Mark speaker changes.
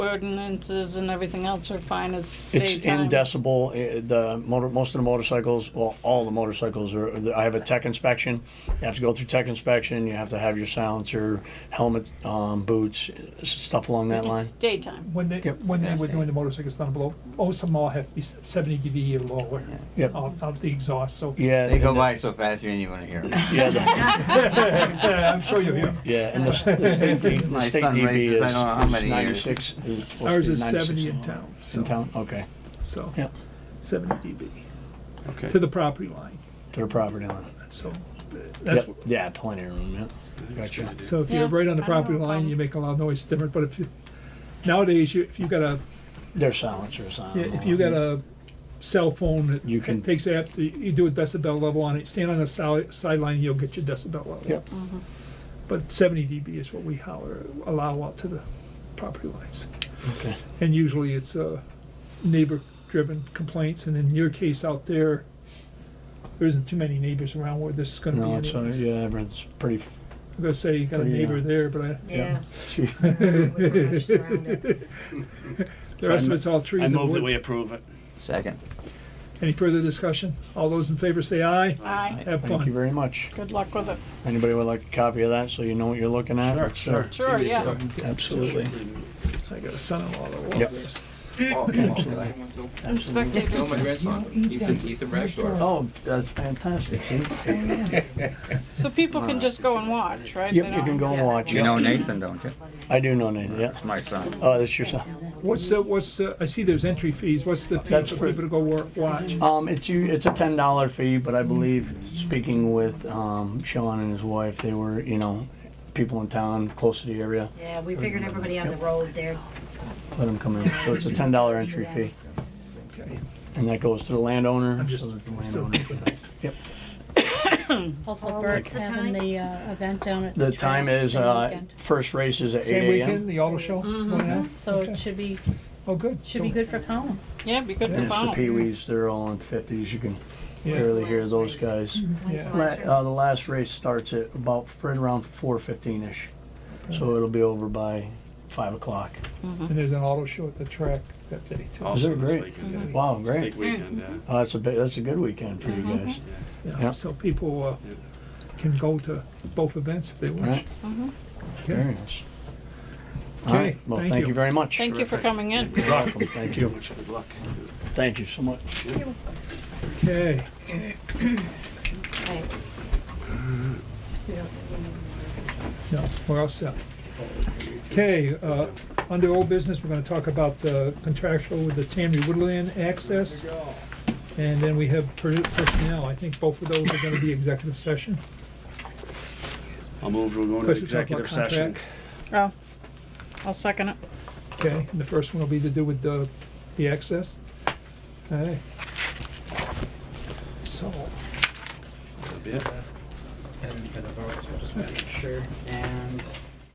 Speaker 1: ordinances and everything else are fine as
Speaker 2: It's in
Speaker 1: daytime.
Speaker 2: decibel, eh, the motor, most of the motorcycles, well, all the motorcycles are, I have a tech inspection. You have to go through tech inspection, you have to have your silencer, helmet, um, boots, s- stuff along that
Speaker 1: It's
Speaker 2: line.
Speaker 1: daytime.
Speaker 3: When they,
Speaker 2: Yep.
Speaker 3: when they
Speaker 4: Yes.
Speaker 3: were doing the motorcycles down below, most of them all have to be seventy dB or lower.
Speaker 2: Yep.
Speaker 3: Out, out the exhaust, so.
Speaker 2: Yeah.
Speaker 4: They go
Speaker 2: and the-
Speaker 4: by so fast you didn't even hear 'em.
Speaker 2: Yeah, the-
Speaker 3: I'm sure you'll hear.
Speaker 2: yeah, and the s- the state D- the
Speaker 4: My
Speaker 2: state
Speaker 4: son
Speaker 2: DB
Speaker 4: races,
Speaker 2: is
Speaker 4: I don't know how
Speaker 2: is
Speaker 4: many years.
Speaker 2: 96. It was supposed to
Speaker 3: Ours
Speaker 2: be
Speaker 3: is
Speaker 2: 96.
Speaker 3: seventy in town,
Speaker 2: In
Speaker 3: so,
Speaker 2: town, okay,
Speaker 3: so,
Speaker 2: yeah,
Speaker 3: seventy dB, to
Speaker 5: Okay.
Speaker 3: the property line,
Speaker 2: to the property line.
Speaker 3: so. uh,
Speaker 2: Yep,
Speaker 3: That's,
Speaker 2: yeah, plenty of room, yeah. Gotcha.
Speaker 3: so if you're
Speaker 1: Yeah,
Speaker 3: right on the
Speaker 1: I don't have a
Speaker 3: property line,
Speaker 1: problem.
Speaker 3: you make a lot of noise different, but if you, nowadays, you, if you got a,
Speaker 2: Their silencers on.
Speaker 3: Yeah, if you got a cell phone,
Speaker 2: You
Speaker 3: it-
Speaker 2: can-
Speaker 3: it takes, app- you do a decibel level on it, stand on the side- sideline, you'll get your decibel level.
Speaker 2: Yep.
Speaker 3: But seventy dB is what we holler, allow out to the property lines.
Speaker 2: Okay.
Speaker 3: And usually it's, uh, neighbor-driven complaints, and in your case out there, there isn't too many neighbors around where this is gonna be.
Speaker 2: No, it's, uh,
Speaker 3: anyways.
Speaker 2: yeah, it's pretty, f-
Speaker 3: I'm gonna say you got a
Speaker 2: pretty, uh,
Speaker 3: neighbor there, but I,
Speaker 2: Yeah.
Speaker 3: the rest of it's all
Speaker 5: I
Speaker 3: trees and
Speaker 5: move that we
Speaker 3: woods.
Speaker 5: approve it.
Speaker 4: Second.
Speaker 3: Any further discussion? All those in favor say aye.
Speaker 1: Aye.
Speaker 3: Have
Speaker 2: thank you
Speaker 3: fun.
Speaker 2: very much.
Speaker 1: Good luck with it.
Speaker 2: Anybody would like a copy of that, so you know what you're looking at? It's, uh,
Speaker 1: Sure, yeah.
Speaker 2: Absolutely.
Speaker 3: I got a son-in-law that will
Speaker 2: Yep.
Speaker 3: love this.
Speaker 6: No,
Speaker 2: Absolutely.
Speaker 1: Inspector,
Speaker 6: my grandson, Ethan, Ethan Bradshaw.
Speaker 2: Oh, that's fantastic, see?
Speaker 1: so people can just go and watch, right?
Speaker 2: Yep,
Speaker 1: They
Speaker 2: you can
Speaker 1: don't-
Speaker 2: go and watch
Speaker 4: You
Speaker 2: it.
Speaker 4: know Nathan, don't you?
Speaker 2: I do know Nathan, yeah.
Speaker 4: It's my son.
Speaker 2: Oh, that's your son.
Speaker 3: What's the, what's, the- I see there's entry fees, what's the fee
Speaker 2: That's
Speaker 3: for
Speaker 2: for-
Speaker 3: people to go wor- watch?
Speaker 2: Um, it's you, it's a ten dollar fee, but
Speaker 3: Mm.
Speaker 2: I believe, speaking with, um, Sean and his wife, they were, you know, people in town, close to the area,
Speaker 7: Yeah, we figured everybody on the road there.
Speaker 2: let them come in. So it's a ten dollar entry fee,
Speaker 3: Okay.
Speaker 2: and that goes to the landowner,
Speaker 3: I'm just-
Speaker 2: so that the
Speaker 3: so-
Speaker 2: landowner.
Speaker 7: Oh,
Speaker 8: Also,
Speaker 7: what's
Speaker 8: Bert's
Speaker 7: the time?
Speaker 8: having the uh, event down at the
Speaker 2: The
Speaker 8: track.
Speaker 2: time is,
Speaker 8: same
Speaker 2: uh,
Speaker 8: weekend.
Speaker 2: first race is at
Speaker 3: Same
Speaker 2: eight AM.
Speaker 3: weekend, the auto show? is going on?
Speaker 8: Mm-hmm. So
Speaker 3: Okay.
Speaker 8: it should be,
Speaker 3: Oh, good.
Speaker 8: should be
Speaker 3: So-
Speaker 8: good for Colin.
Speaker 1: Yeah, be good
Speaker 2: And
Speaker 1: for
Speaker 2: it's the
Speaker 1: Bono.
Speaker 2: Pee-wees, they're all in fifties, you can
Speaker 3: Yeah.
Speaker 2: clearly hear those guys.
Speaker 1: Mm-hmm.
Speaker 7: When's the
Speaker 2: La-
Speaker 7: last year?
Speaker 2: uh, the last race starts at about right around four fifteen ish,
Speaker 3: Mm-hmm.
Speaker 2: so it'll be over by five o'clock.
Speaker 3: And there's an auto show at the track that day too.
Speaker 5: Also this
Speaker 2: great?
Speaker 5: weekend, yeah.
Speaker 3: Mm-hmm.
Speaker 2: Wow,
Speaker 5: Big
Speaker 2: great!
Speaker 5: weekend, yeah.
Speaker 2: Oh, that's a big, that's a good weekend for you
Speaker 1: Mm-hmm.
Speaker 2: guys,
Speaker 3: Yeah,
Speaker 2: Yeah.
Speaker 3: So people uh,
Speaker 5: Yeah.
Speaker 3: can go to both events if they
Speaker 1: Mm-hmm.
Speaker 3: wish.
Speaker 2: right?
Speaker 3: Okay.
Speaker 2: Very nice. All
Speaker 3: Okay,
Speaker 2: right, well,
Speaker 3: thank
Speaker 2: thank
Speaker 3: you.
Speaker 2: you very much.
Speaker 1: Thank you for
Speaker 5: Terrific.
Speaker 1: coming in.
Speaker 5: Good luck.
Speaker 2: Thank you.
Speaker 5: Much good luck.
Speaker 2: Thank you so much.
Speaker 3: Okay,
Speaker 7: Right.
Speaker 3: no, we're all set. Okay, uh, under old business, we're gonna talk about the contractual with the Tammy Woodland access. And then we have per- personnel. I think both of those are gonna be executive session.
Speaker 5: I'll move, we'll go into
Speaker 3: Question talk about
Speaker 5: executive session.
Speaker 3: contract.
Speaker 1: Oh, I'll second it.
Speaker 3: Okay, and the first one will be to do with the, the access. Okay. So,
Speaker 5: Yeah.
Speaker 9: And we can vote, so just make sure, and